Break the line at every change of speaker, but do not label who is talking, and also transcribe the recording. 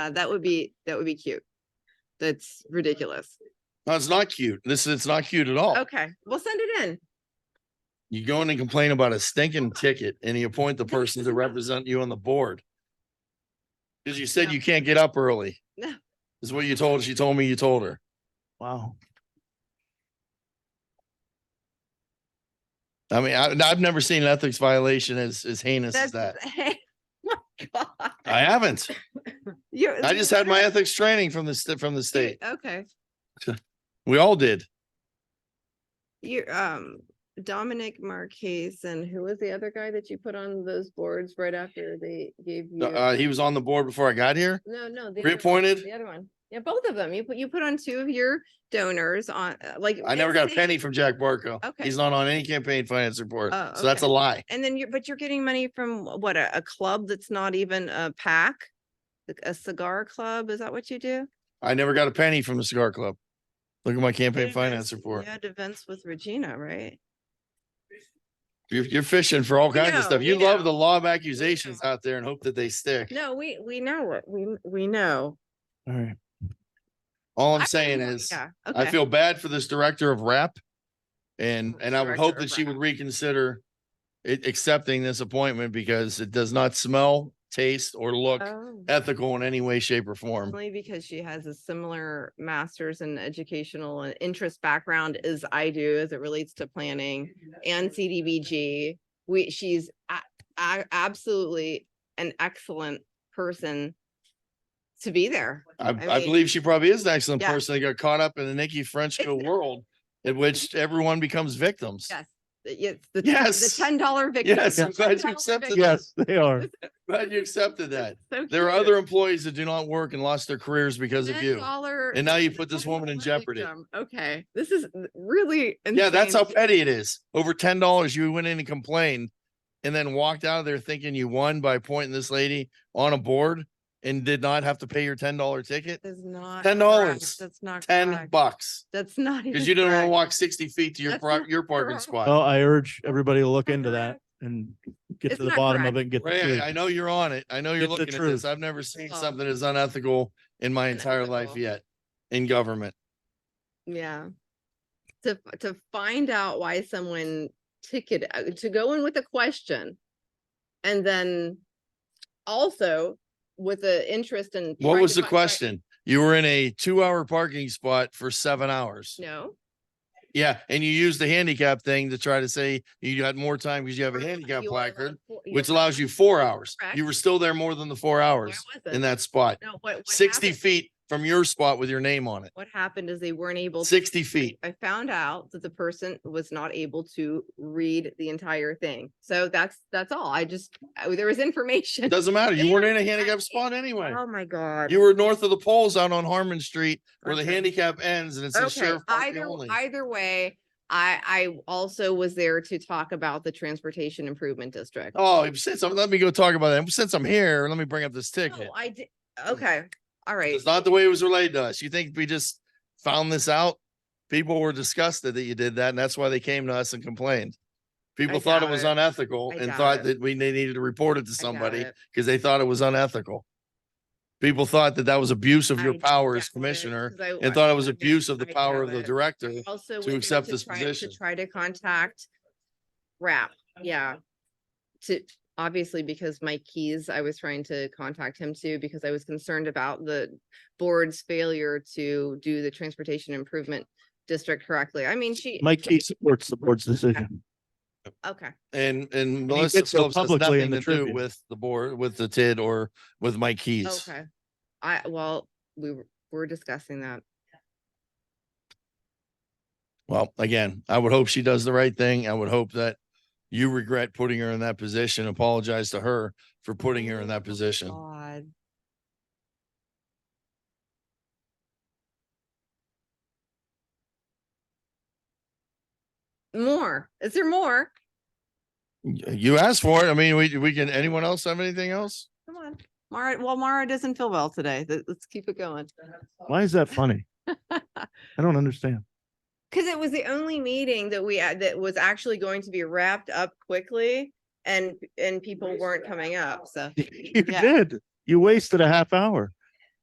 Uh, that would be, that would be cute. That's ridiculous.
No, it's not cute. This is, it's not cute at all.
Okay, we'll send it in.
You go in and complain about a stinking ticket and you appoint the person to represent you on the board. Cause you said
No.
you can't get up early.
No.
Is what you told, she told me you told her. Wow. I mean, I, I've never seen an ethics violation as, as heinous as
That's,
that.
hey, my God.
I haven't.
You-
I just had my ethics training from the, sta- from the
you-
state.
Okay,
We all did.
you, um, Dominic Marquez and who was the other guy that you put on those boards right after they gave you?
Uh, he was on the board before I got here.
No, no. the other one,
Reappointed?
The other one. Yeah, both of them. You put, you put on two of your donors on, uh, like.
I never
it's
got a
the-
penny from Jack Barco.
Okay.
He's not on any campaign finance report.
Oh,
So that's a
okay.
lie.
And then you're, but you're getting money from what, a, a club that's not even a pack? Like A cigar club? Is that what you do?
I never got a penny from the cigar club. Look at my
You
campaign
had
finance
events-
report.
You had events with Regina, right?
You're, you're fishing for all
We
kinds of
know,
stuff.
we
You love
know.
the law of accusations out there and hope that they stick.
No, we, we know what, we, we know.
All right. All
I
I'm saying
know,
is,
yeah,
I
okay.
feel bad for this director of rap. And, and I would hope
Director of
that she would
rap.
reconsider it, accepting this appointment because it does not smell, taste, or look
Oh,
ethical in any way, shape or form.
Only because she has a similar master's in educational and interest background as I do as it relates to planning and CDBG. We, she's a- a- absolutely an excellent person to be there.
I,
I
I
mean-
believe she probably is an excellent
Yeah.
person that got caught up in the Nikki Frenchco world in which everyone becomes victims.
Yes. It's the, the
Yes.
ten dollar victim.
Yes,
the
I'm glad you
$10
accepted
victim.
that.
Yes, they are.
Glad you accepted that.
So
There are
cute.
other employees that do not work and lost their careers because of you.
$10
And now you
the
put this
$10
woman in jeopardy.
victim. Okay, this is really.
Yeah, that's how
insane.
petty it is. Over ten dollars, you went in and complained and then walked out of there thinking you won by pointing this lady on a board and did not have to pay your ten dollar ticket.
Is not.
$10.
correct. That's not.
Ten
correct.
bucks.
That's not. even
Because you didn't want to
correct.
walk sixty feet to your
That's
pro-
not
your parking
correct.
spot.
Well, I urge everybody to look into that
Correct.
and get
It's
to the
not
bottom
correct.
of it and get the
Ray, I- I
truth.
know you're on it. I know you're
Get the
looking at this.
truth.
I've never seen
Oh.
something as unethical in my entire life
Unethical.
yet in government.
Yeah. To, to find out why someone ticketed, uh, to go in with a question. And then also with the interest in.
What
trying
was
to
the
fi- try-
question? You were in a two-hour parking spot for seven hours.
No,
Yeah, and you used the handicap thing to try to say you had more time because you have a handicap
Uh-huh. you are allowed
placard,
four- you
which
are allowed
allows you four hours. You
Correct.
were still there more than the four
four
hours
hours.
in that spot.
No, what- what
Sixty
happened-
feet from your spot with your name on it.
What happened is they weren't able. to-
Sixty feet.
I found out that the person was not able to read the entire thing. So that's, that's all. I just, I- there was information.
Doesn't matter. You
They
weren't
were
in a handicap
correct.
spot anyway.
Oh, my God.
You were north of the poles out on Harmon Street where the
Okay.
handicap ends and it says
Okay,
sheriff parking
either,
only.
either way, I, I also was there to talk about the transportation improvement district.
Oh, since I'm, let me go talk about that. Since I'm here, let me bring up this ticket.
No, I did, okay, all right.
It's not the way it was relayed to us. You think we just found this out? People were disgusted that you did that and that's why they came to us and complained. People thought it
doubt
was
it.
unethical
I
and
doubt
thought
it.
that we they needed to report it to
I got
somebody
it.
because they thought it was unethical. People thought that that was abuse of your
I
power as
doubt it,
commissioner
'cause I-
and thought it was
I-
abuse of the
I
power
doubt
of the
it.
director.
Also. was
to
there
accept this
try-
position.
To try to contact RAP, yeah. To, obviously, because Mike Keys, I was trying to contact him too, because I was concerned about the board's failure to do the transportation improvement district correctly. I mean, she,
Mike Key supports the board's decision.
okay.
And and
he
Melissa
did so
Phillips has
publicly
nothing
in
to
the
do
Tribune.
with the board, with the TID or with Mike Keys.
Okay, I, well, we were- were discussing that.
Well, again, I would hope she does the right thing. I would hope that you regret putting her in that position. Apologize to her for putting her in that position.
Oh, God. More, is there more?
Y- You asked for it. I mean, we, we can, anyone else have anything else?
Come on, Mara, well, Mara doesn't feel well today, Let- let's keep it going.
Why is that funny? I don't understand.
Cause it was the only meeting that we, had that was actually going to be wrapped up quickly and, and people weren't coming up, so.
You
Yeah.
did. You wasted a half hour.